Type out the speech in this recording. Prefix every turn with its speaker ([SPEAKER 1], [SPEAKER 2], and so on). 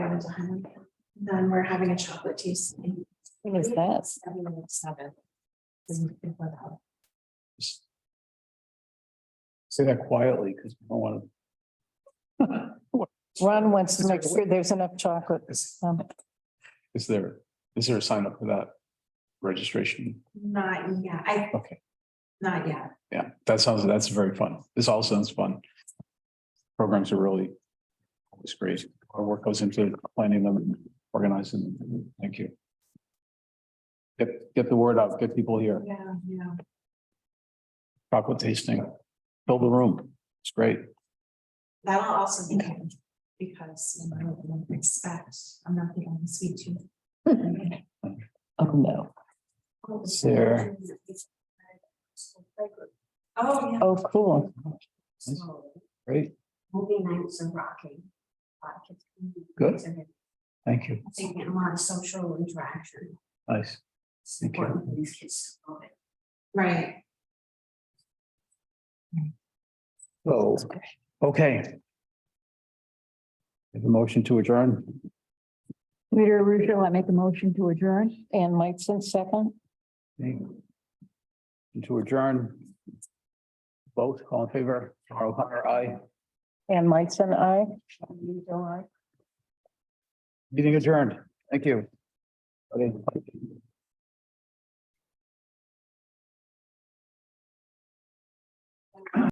[SPEAKER 1] at one. Then we're having a chocolate taste. in
[SPEAKER 2] What is this?
[SPEAKER 1] seven and seven. Isn't it for the-
[SPEAKER 3] Say that quietly, because we don't want to.
[SPEAKER 2] Ron wants to make sure there's enough chocolate. Um,
[SPEAKER 3] Is there, is there a sign up for that registration?
[SPEAKER 1] Not yet, I.
[SPEAKER 3] Okay.
[SPEAKER 1] Not yet.
[SPEAKER 3] Yeah, that sounds, that's very fun. This all sounds fun. Programs are really, it's great. Our work goes into planning them, organizing them. Thank you. Get, get the word out, get people here,
[SPEAKER 1] Yeah, yeah.
[SPEAKER 3] chocolate tasting, fill the room. It's great.
[SPEAKER 1] That'll also be good because you know, I don't expect, I'm not the only sweet tooth.
[SPEAKER 2] Um, Oh, no.
[SPEAKER 3] Sarah.
[SPEAKER 1] Oh, yeah.
[SPEAKER 2] Oh, cool.
[SPEAKER 1] So,
[SPEAKER 3] Great.
[SPEAKER 1] Movie nights and rocking. A lot of kids can do
[SPEAKER 3] Good.
[SPEAKER 1] things and they're
[SPEAKER 3] Thank you.
[SPEAKER 1] Taking a lot of social interaction.
[SPEAKER 3] Nice.
[SPEAKER 1] It's
[SPEAKER 3] Thank you.
[SPEAKER 1] important for these kids. to love it. Right.
[SPEAKER 3] So, okay. Have a motion to adjourn.
[SPEAKER 2] Leader Russo, I make a motion to adjourn. And Meitzen, second.
[SPEAKER 3] Okay. And To adjourn. Both, all in favor, Carl Connor, aye.
[SPEAKER 2] And Meitzen, I.
[SPEAKER 3] Meeting adjourned. Thank you. Okay.